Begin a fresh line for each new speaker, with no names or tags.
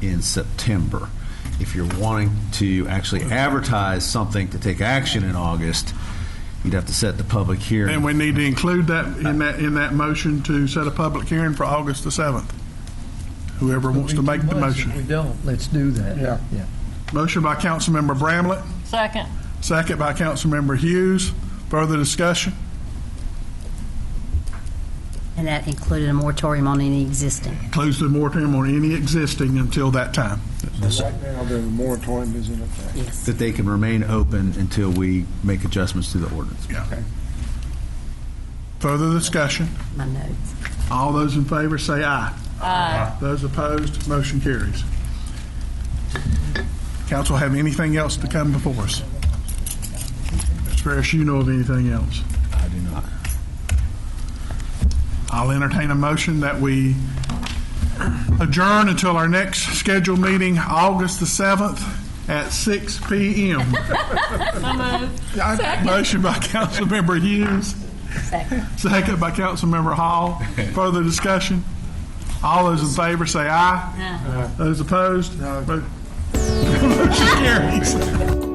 in September. If you're wanting to actually advertise something to take action in August, you'd have to set the public hearing.
And we need to include that in that, in that motion to set a public hearing for August the 7th. Whoever wants to make the
We
motion.
don't, let's do that.
Yeah.
Yeah.
Motion by Councilmember Bramlett,
Second.
second by Councilmember Hughes. Further discussion?
And that included a moratorium on any existing.
Close the moratorium on any existing until that time.
So right now, the moratorium is in effect.
Yes.
That they can remain open until we make adjustments to the ordinance.
Yeah. Further discussion?
My notes.
All those in favor say aye. Aye. Those opposed, motion carries. Council have anything else to come before us? As far as you know of anything else?
I do not.
I'll entertain a motion that we adjourn until our next scheduled meeting, August the 7th, at 6 PM. I- Motion by Councilmember Hughes.
Second.
Second by Councilmember Hall. Further discussion? All those in favor say aye. Those opposed? Mo- Motion carries.